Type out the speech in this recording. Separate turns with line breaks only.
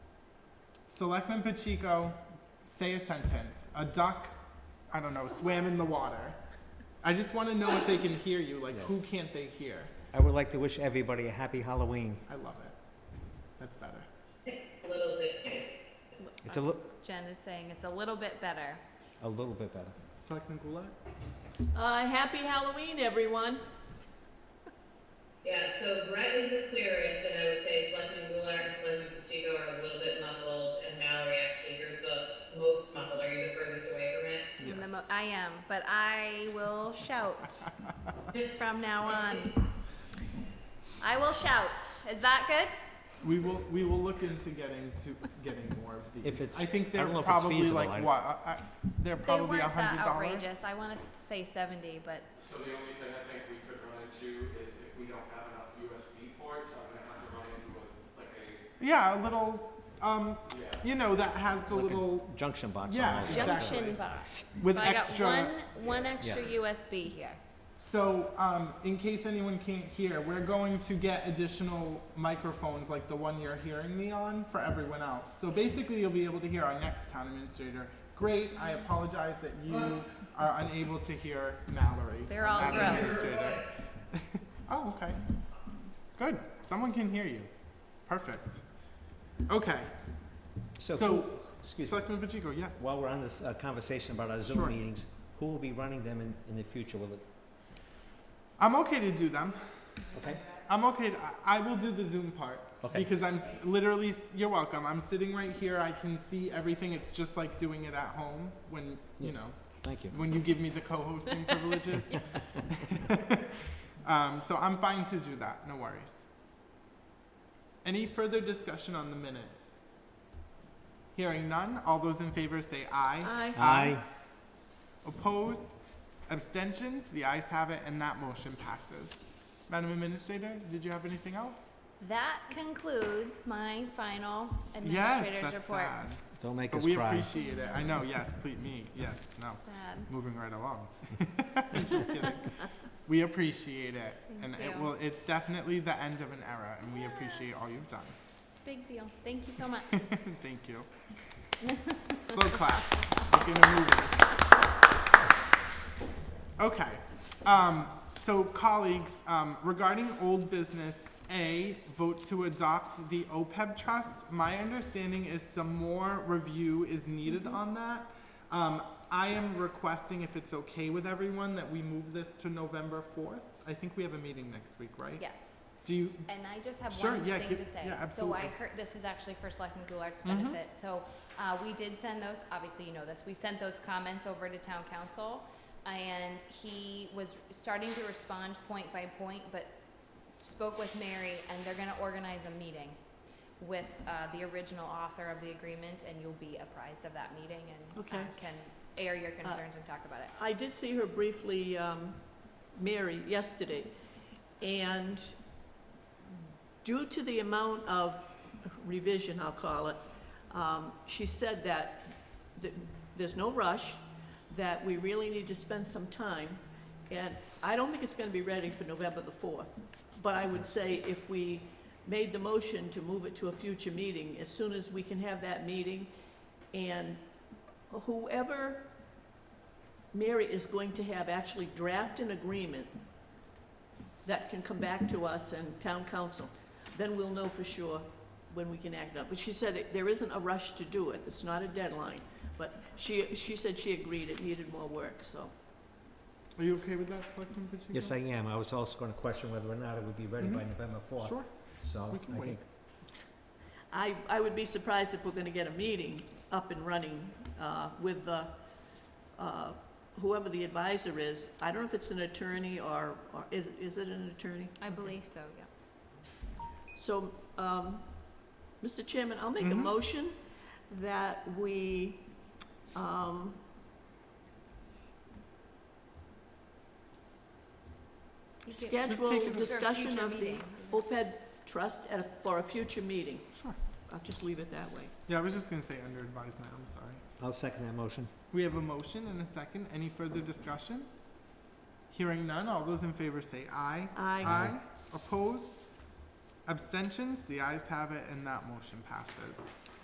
Selectman Pacheco, say a sentence. A duck, I don't know, swam in the water. I just want to know if they can hear you. Like, who
Yes.
can't they hear?
I would like to wish everybody a happy Halloween.
I love it. That's better.
It's a, li-
Jen is saying it's a little bit better.
a little bit better.
Selectman Goulart?
Uh, happy Halloween, everyone.
Yeah, so Brett is the clearest, and I would say Selectman Goulart and Selectman Pacheco are a little bit muffled, and Mallory, actually, you're the most muffled. Are you the furthest away from it?
I'm the mo- I am, but I will shout from now on. I will shout. Is that good?
We will we will look into getting to getting more of these.
If it's-
I think
I
they're
don't know if it's
probably
feasible,
like
I-
what? I, I, they're
They
probably a
weren't that
hundred dollars.
outrageous. I want to say 70, but
So the only thing I think we could run into is if we don't have enough USB ports, I'm gonna have to run into a, like a,
Yeah, a little. Um,
yeah.
you know that has the
Like a
little
Junction box
Yeah,
almost.
Exactly.
junction box.
with
so I
extra.
got one one extra USB here.
So, um, in case anyone can't hear, we're going to get additional microphones like the one you're hearing me on for everyone else. So basically, you'll be able to hear our next town administrator. Great. I apologize that you are unable to hear Mallory.
They're all
our
grown.
administrator. oh, okay. Good. Someone can hear you. Perfect. Okay.
So,
So,
who- excuse me,
Selectman Pacheco, yes.
while we're on this uh, conversation about our Zoom
Sure.
meetings, who will be running them in, in the future? Will it,
I'm okay to do them.
okay?
I'm okay. I, I will do the Zoom part
Okay.
because I'm s- literally. s- You're welcome. I'm sitting right here. I can see everything. It's just like doing it at home when you
Yeah.
know
Thank you.
when you give me the co-hosting privileges. um, so I'm fine to do that. No worries. Any further discussion on the minutes? Hearing none. All those in favor say aye.
Aye.
Aye.
Opposed? Abstentions? The ayes have it, and that motion passes. Madam Administrator, did you have anything else?
That concludes my final
Yes,
administrator's
that's
report.
sad.
Don't make
But
us
we
cry.
appreciate it. I know, yes, please, me, yes, no.
Sad.
Moving right along. Just kidding. We appreciate it. And
Thank
it
you.
will, it's definitely the end of an era, and we appreciate all you've done.
It's a big deal. Thank you so much.
Thank you. Slow clap. We're gonna move it. Okay, um, so colleagues, um, regarding old business, A, vote to adopt the OPEB trust. My understanding is some more review is needed
Mm-hmm.
on that. Um, I am requesting, if it's okay with everyone, that we move this to November fourth. I think we have a meeting next week, right?
Yes.
Do you,
And I just have
Sure,
one
yeah,
thing
give-
to say.
yeah,
So
absolutely.
I heard, this is actually for Selectman Goulart's
Mhm.
benefit. So, uh, we did send those, obviously you know this, we sent those comments over to town council. And he was starting to respond point by point, but spoke with Mary and they're gonna organize a meeting with, uh, the original author of the agreement and you'll be apprised of that meeting and uh,
Okay. Uh,
can air your concerns and talk about it.
I did see her briefly, um, Mary, yesterday, and due to the amount of revision, I'll call it, um, she said that th- there's no rush, that we really need to spend some time, and I don't think it's gonna be ready for November the fourth, but I would say if we made the motion to move it to a future meeting, as soon as we can have that meeting, and whoever Mary is going to have actually draft an agreement that can come back to us and town council. Then we'll know for sure when we can act up. But she said it- there isn't a rush to do it. It's not a deadline. But she, she said she agreed it needed more work, so.
are you okay with that, Selectman Pacheco?
Yes, I am. I was also gonna question whether or not it would be ready by November fourth,
Mm-hmm. Sure,
so
we can
I
wait.
think,
I, I would be surprised if we're gonna get a meeting up and running, uh, with the, uh, whoever the advisor is. I don't know if it's an attorney or, or is, is it an attorney?
I believe so, yeah.
So, um, Mr. Chairman, I'll make a
Mhm.
motion that we, um,
You can-
schedule
take it- For a
discussion
future
of the
meeting.
OPEB trust at, a- for a future meeting.
sure.
I'll just leave it that way.
Yeah, I was just gonna say under advisement, I'm sorry.
I'll second that motion.
We have a motion and a second. Any further discussion? Hearing none, all those in favor say aye.
I,
Opposed? Abstentions? The ayes have it and that motion passes.